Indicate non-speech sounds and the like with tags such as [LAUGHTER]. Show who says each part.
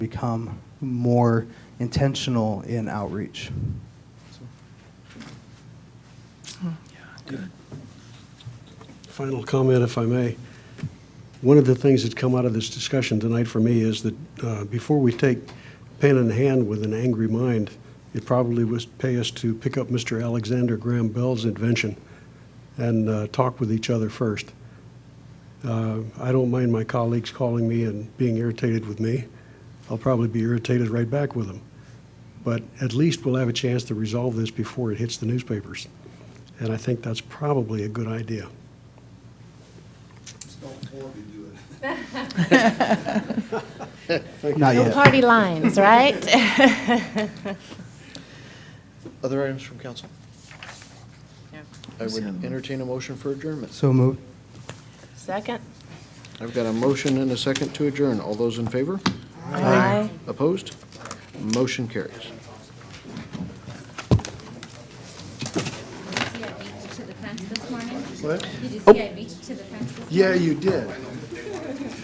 Speaker 1: become more intentional in outreach.
Speaker 2: Final comment, if I may. One of the things that's come out of this discussion tonight for me is that uh, before we take pen in hand with an angry mind, it probably would pay us to pick up Mr. Alexander Graham Bell's invention and uh, talk with each other first. Uh, I don't mind my colleagues calling me and being irritated with me. I'll probably be irritated right back with them. But at least we'll have a chance to resolve this before it hits the newspapers. And I think that's probably a good idea.
Speaker 1: Not
Speaker 3: No
Speaker 1: yet.
Speaker 3: party lines, right? [LAUGHS]
Speaker 4: Other items from council? I would entertain a motion for adjournment.
Speaker 1: So moved.
Speaker 3: Second?
Speaker 4: I've got a motion and a second to adjourn. All those in favor?
Speaker 3: Aye.
Speaker 4: Opposed? Motion carries.
Speaker 5: see I beat you to the fence this morning?
Speaker 4: What?
Speaker 5: Did you see I beat you to the fence this morning?
Speaker 4: you did.